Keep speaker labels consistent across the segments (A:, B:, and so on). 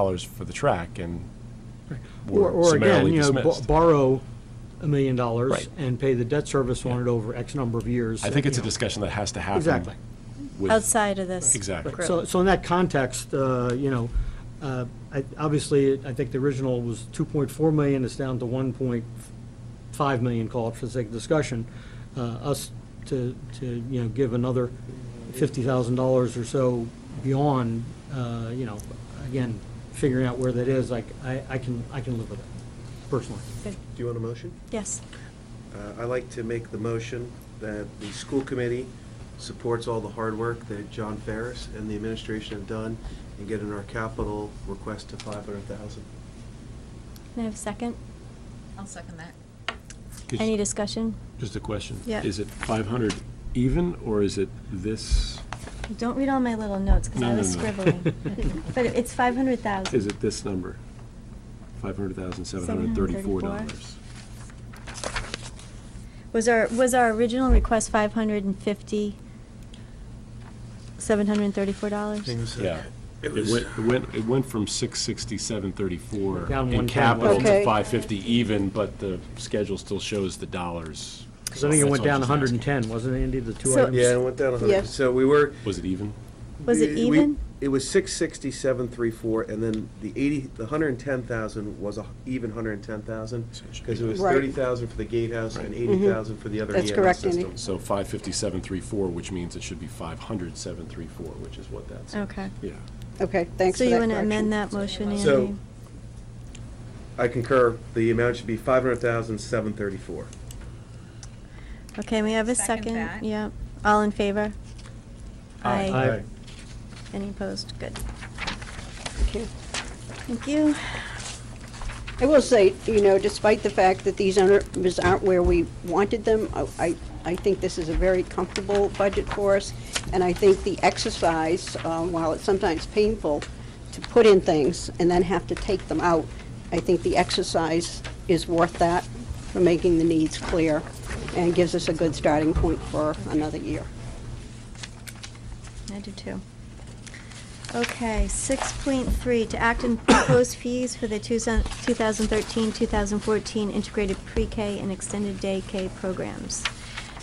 A: dollars for the track and
B: Or,
A: were
B: or again,
A: summarily
B: you know, bo-
A: dismissed.
B: borrow a million dollars
A: Right.
B: and pay the debt service on it over X number of years.
A: I think it's a
B: you know.
A: discussion that has to happen.
B: Exactly.
A: with-
C: outside of this.
A: Exactly.
C: group.
B: So, so in that context, uh, you know, uh, I- obviously, I think the original was 2.4 million, it's down to 1.5 million, call it for the sake of discussion. Uh, Us to, to, you know, give another $50,000 or so beyond, uh, you know, again, figuring out where that is, like, I, I can, I can live with it personally.
C: Good.
D: Do you want a motion?
C: Yes.
D: Uh, I'd like to make the motion that the school committee supports all the hard work that John Ferris and the administration have done in getting our capital request to 500,000.
C: Can I have a second?
E: I'll second that.
A: Could-
C: Any discussion?
A: Just a question.
C: Yeah.
A: Is it 500 even, or is it this,
C: Don't read all my little notes, because
A: No,
C: I
A: no,
C: was
A: no.
C: scribbling. But it's five hundred thousand.
A: is it this number? 500,734 dollars.
C: Was our, was our original request five hundred and fifty, seven hundred and thirty-four dollars?
A: Yeah. It
D: was-
A: went, it went, it went from 667.34
B: Down
A: in
B: one
A: capital
B: time.
A: to
F: Okay.
A: 550 even, but the schedule still shows the dollars.
B: Because I think it
A: That's
B: went
A: all I'm
B: down
A: just asking.
B: 110, wasn't it, Andy, the two
C: So-
B: items?
D: Yeah, it went down 100.
F: Yeah.
D: So we were.
A: Was it even?
C: Was it
D: we-
C: even?
D: It was 667,34, and then the 80, the 110,000 was a h- even 110,000,
A: So it should
D: because it
A: be-
D: was
F: Right. Mm-hmm.
D: 30,000 for the gatehouse and 80,000 for the other
F: That's
D: EMS
F: correct, Andy.
D: system.
A: So 557.34, which means it should be 500,734, which is what that's.
C: Okay.
A: Yeah.
F: Okay, thanks
C: So
F: for that
C: you want to
F: correction.
C: amend that motion,
D: So-
C: Andy?
D: I concur, the amount should be 500,734.
C: Okay, may I have a
E: Second
C: second?
E: that.
C: Yep. All in favor?
A: Aye.
B: Aye.
C: Any opposed? Good.
F: Okay.
C: Thank you.
F: I will say, you know, despite the fact that these numbers aren't where we wanted them, I- I, I think this is a very comfortable budget for us, and I think the exercise, um, while it's sometimes painful to put in things and then have to take them out, I think the exercise is worth that for making the needs clear and gives us a good starting point for another year.
C: I do too. Okay, six point three, to act and propose fees for the two thousand thirteen, two thousand fourteen integrated pre-K and extended day K programs,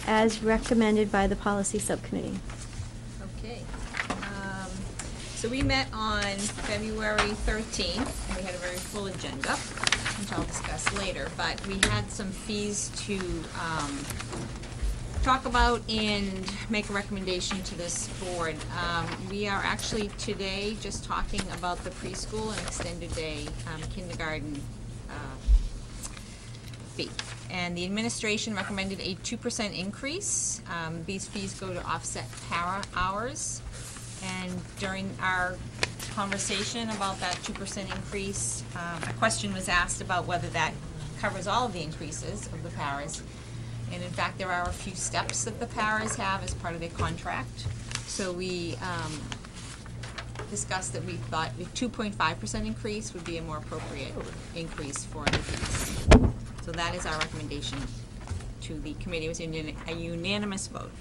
C: as recommended by the policy subcommittee.
E: Okay. Um, So we met on February 13th, and we had a very full agenda, which I'll discuss later, but we had some fees to um, talk about and make a recommendation to this board. Um, We are actually today just talking about the preschool and extended day um, kindergarten uh, fee. And the administration recommended a two percent increase. Um, These fees go to offset para hours. And during our conversation about that two percent increase, um, a question was asked about whether that covers all of the increases of the paras. And in fact, there are a few steps that the paras have as part of their contract. So we um, discussed that we thought a two point five percent increase would be a more appropriate increase for the fees. So that is our recommendation to the committee. It was unan- a unanimous vote.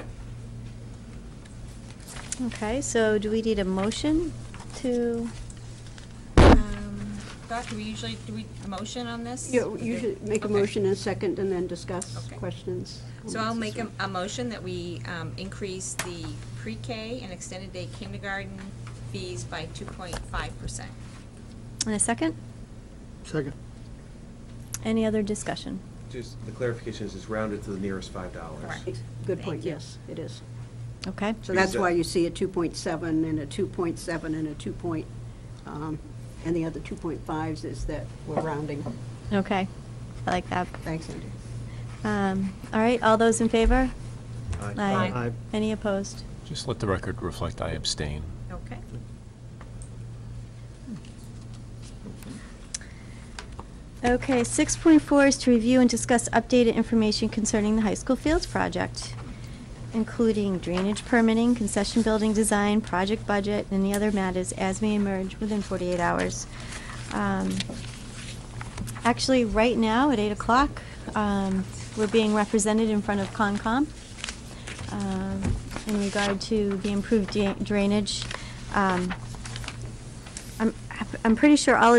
C: Okay, so do we need a motion to,
E: Um, Doc, do we usually, do we motion on this?
F: You you should make a
E: Okay.
F: motion and a second, and then discuss
E: Okay.
F: questions.
E: So I'll make a, a motion that we um, increase the pre-K and extended day kindergarten fees by two point five percent.
C: in a second?
B: Second.
C: Any other discussion?
D: Just, the clarification is it's rounded to the nearest $5.
E: Correct.
F: Good
E: Thank
F: point,
E: you.
F: yes, it is.
C: Okay,
F: So
D: Because
F: that's why
D: that-
F: you see a 2.7 and a 2.7 and a 2 point, um, and the other 2.5s is that we're rounding.
C: okay, I like that.
F: Thanks, Andy.
C: Um, all right, all those in favor?
D: Aye.
C: Aye.
B: Aye.
C: Any opposed?
A: Just let the record reflect I abstain.
E: Okay.
C: Okay, 6.4 is to review and discuss updated information concerning the high school fields project, including drainage permitting, concession building design, project budget, and the other matters as may emerge within 48 hours. Um, Actually, right now, at 8 o'clock, um, we're being represented in front of Concom um, in regard to the improved dra- drainage. Um, I'm- I'm pretty sure all of